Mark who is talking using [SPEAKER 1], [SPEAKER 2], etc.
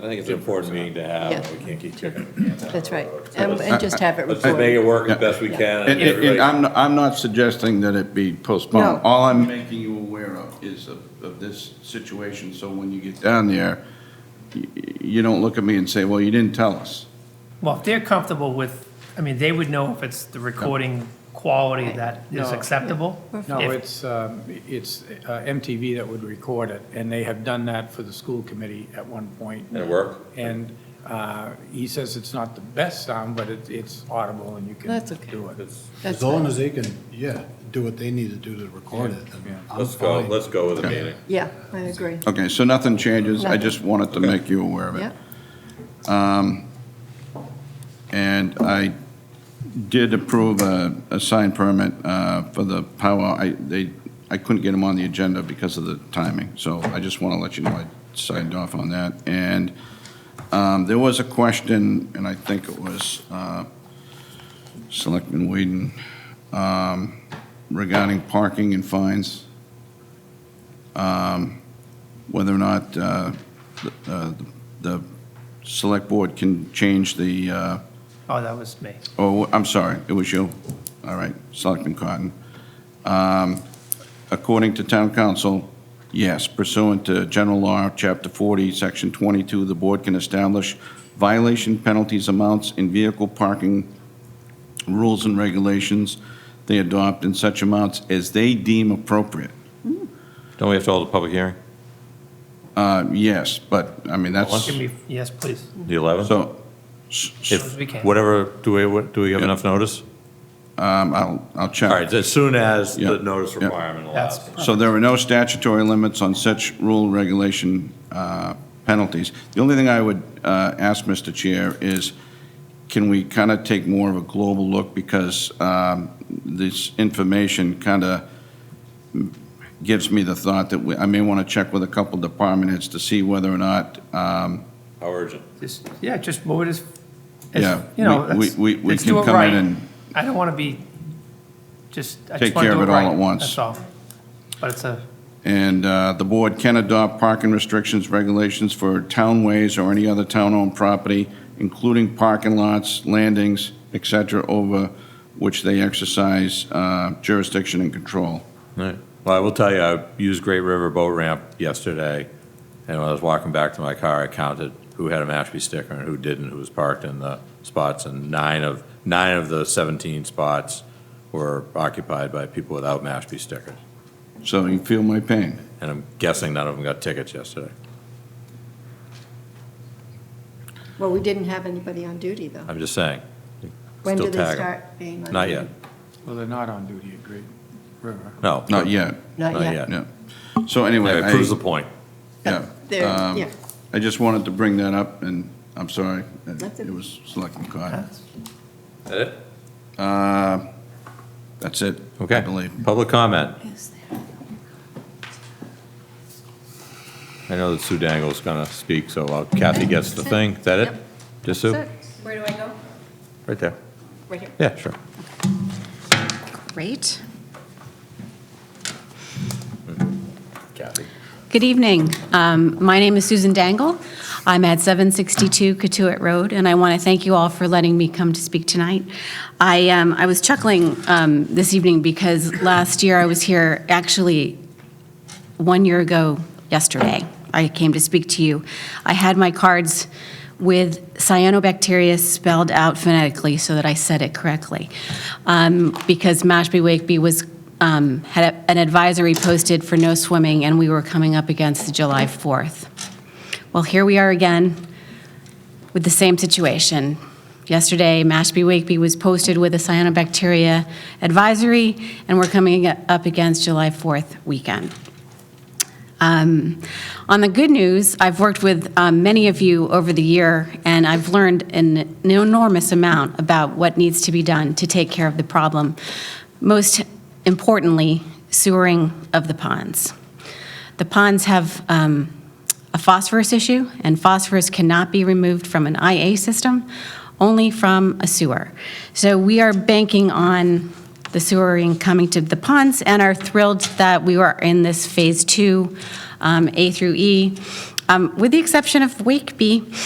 [SPEAKER 1] I think it's an important meeting to have,
[SPEAKER 2] Yeah.
[SPEAKER 1] we can't keep kicking.
[SPEAKER 2] That's right. And and just have it
[SPEAKER 1] Let's just make
[SPEAKER 2] recorded.
[SPEAKER 1] it work as best we can.
[SPEAKER 3] And, and-
[SPEAKER 1] everybody-
[SPEAKER 3] and I'm, I'm not suggesting that it be postponed.
[SPEAKER 2] No.
[SPEAKER 3] All I'm making you aware of is of, of this situation, so when you get down there, y- you don't look at me and say, well, you didn't tell us.
[SPEAKER 4] Well, if they're comfortable with, I mean, they would know if it's the recording quality that is
[SPEAKER 5] No.
[SPEAKER 4] acceptable.
[SPEAKER 5] No,
[SPEAKER 4] If-
[SPEAKER 5] it's, um, it's uh, MTV that would record it, and they have done that for the school committee at one point.
[SPEAKER 1] And it worked?
[SPEAKER 5] And uh, he says it's not the best sound, but it- it's audible and you can
[SPEAKER 2] That's okay.
[SPEAKER 5] do it.
[SPEAKER 2] That's
[SPEAKER 6] As long as they can, yeah, do what they need to do to record it. then I'm
[SPEAKER 1] Let's go,
[SPEAKER 6] fine.
[SPEAKER 1] let's go with the meeting.
[SPEAKER 2] Yeah, I agree.
[SPEAKER 3] Okay, so nothing changes, I just wanted to
[SPEAKER 1] Nothing.
[SPEAKER 3] make you aware of it.
[SPEAKER 2] Yeah,
[SPEAKER 3] And I did approve a, a sign permit uh, for the power, I, they, I couldn't get them on the agenda because of the timing, so I just want to let you know I signed off on that. And um, there was a question, and I think it was uh, Selectman Whedon, um, regarding parking and fines, Um, whether or not uh, the- uh, the select board can change the uh,
[SPEAKER 4] Oh, that was me.
[SPEAKER 3] Oh, I'm sorry, it was you. All right, Selectman Cotton. Um, According to town council, yes, pursuant to general law, chapter 40, section 22, the board can establish violation penalties amounts in vehicle parking rules and regulations they adopt in such amounts as they deem appropriate.
[SPEAKER 1] Don't we have to hold a public hearing?
[SPEAKER 3] Uh, Yes, but, I mean, that's,
[SPEAKER 4] Give me, yes, please.
[SPEAKER 1] The 11th?
[SPEAKER 3] so, s- s-
[SPEAKER 4] As soon as we can.
[SPEAKER 1] Whatever, do we, what- do we have
[SPEAKER 3] Yeah.
[SPEAKER 1] enough notice?
[SPEAKER 3] um, I'll, I'll
[SPEAKER 1] All
[SPEAKER 3] check.
[SPEAKER 1] right, as soon as
[SPEAKER 3] Yeah.
[SPEAKER 1] the notice
[SPEAKER 3] Yeah.
[SPEAKER 1] requirement
[SPEAKER 4] That's,
[SPEAKER 1] allows.
[SPEAKER 3] So there are no statutory limits on such rule regulation uh, penalties. The only thing I would uh, ask, Mr. Chair, is can we kind of take more of a global look? Because um, this information kind of gives me the thought that we- I may want to check with a couple department heads to see whether or not, um,
[SPEAKER 1] How urgent?
[SPEAKER 4] just, yeah, just move it as,
[SPEAKER 3] Yeah,
[SPEAKER 4] as, you know,
[SPEAKER 3] we-
[SPEAKER 4] let's,
[SPEAKER 3] we- we
[SPEAKER 4] let's
[SPEAKER 3] can
[SPEAKER 4] do it
[SPEAKER 3] come in
[SPEAKER 4] right.
[SPEAKER 3] and-
[SPEAKER 4] I don't want to be, just, I
[SPEAKER 3] Take
[SPEAKER 4] just want
[SPEAKER 3] care
[SPEAKER 4] to
[SPEAKER 3] of
[SPEAKER 4] do it
[SPEAKER 3] it all
[SPEAKER 4] right.
[SPEAKER 3] at once.
[SPEAKER 4] That's all. But it's a,
[SPEAKER 3] and uh, the board can adopt parking restrictions, regulations for townways or any other town-owned property, including parking lots, landings, et cetera, over which they exercise uh, jurisdiction and control.
[SPEAKER 1] All right. Well, I will tell you, I used Great River Boat Ramp yesterday, and when I was walking back to my car, I counted who had a Mashpee sticker and who didn't, who was parked in the spots, and nine of, nine of the 17 spots were occupied by people without Mashpee stickers.
[SPEAKER 3] So you feel my pain.
[SPEAKER 1] And I'm guessing none of them got tickets yesterday.
[SPEAKER 2] well, we didn't have anybody on duty, though.
[SPEAKER 1] I'm just saying.
[SPEAKER 2] When
[SPEAKER 1] Still
[SPEAKER 2] do they
[SPEAKER 1] tag 'em.
[SPEAKER 2] start being on?
[SPEAKER 1] Not
[SPEAKER 2] duty?
[SPEAKER 1] yet.
[SPEAKER 5] Well, they're not on duty at Great River.
[SPEAKER 1] No.
[SPEAKER 3] Not yet,
[SPEAKER 2] Not yet.
[SPEAKER 3] yeah. So anyway,
[SPEAKER 1] Anyway, Uh, it proves the
[SPEAKER 3] I,
[SPEAKER 1] point.
[SPEAKER 3] yeah.
[SPEAKER 2] There,
[SPEAKER 3] um,
[SPEAKER 2] yeah.
[SPEAKER 3] I just wanted to bring that up, and I'm sorry, that
[SPEAKER 2] That's
[SPEAKER 3] it
[SPEAKER 2] it.
[SPEAKER 3] was Selectman Cotton.
[SPEAKER 4] that's,
[SPEAKER 1] Is that it?
[SPEAKER 3] Uh, That's it, I
[SPEAKER 1] Okay.
[SPEAKER 3] believe.
[SPEAKER 1] Public comment.
[SPEAKER 2] Yes, they are.
[SPEAKER 1] I know that Sue Dangle's going to speak, so while Kathy gets the thing. Is that it?
[SPEAKER 2] Yep.
[SPEAKER 1] Just Sue?
[SPEAKER 2] That's it.
[SPEAKER 7] Where do I go?
[SPEAKER 1] Right there.
[SPEAKER 7] Right here.
[SPEAKER 1] Yeah, sure.
[SPEAKER 7] Great.
[SPEAKER 1] Kathy.
[SPEAKER 7] Good evening. Um, My name is Susan Dangle. I'm at 762 Katuitt Road, and I want to thank you all for letting me come to speak tonight. I um, I was chuckling um, this evening because last year I was here, actually, one year ago yesterday, I came to speak to you. I had my cards with cyanobacteria spelled out phonetically so that I said it correctly. Um, Because Mashpee Wakeby was, um, had a- an advisory posted for no swimming, and we were coming up against July 4th. Well, here we are again with the same situation. Yesterday, Mashpee Wakeby was posted with a cyanobacteria advisory, and we're coming up against July 4th weekend. Um, On the good news, I've worked with um, many of you over the year, and I've learned an enormous amount about what needs to be done to take care of the problem. Most importantly, sewering of the ponds. The ponds have um, a phosphorus issue, and phosphorus cannot be removed from an IA system, only from a sewer. So we are banking on the sewering coming to the ponds and are thrilled that we are in this Phase 2, um, A through E. um, with the exception of Wakeby.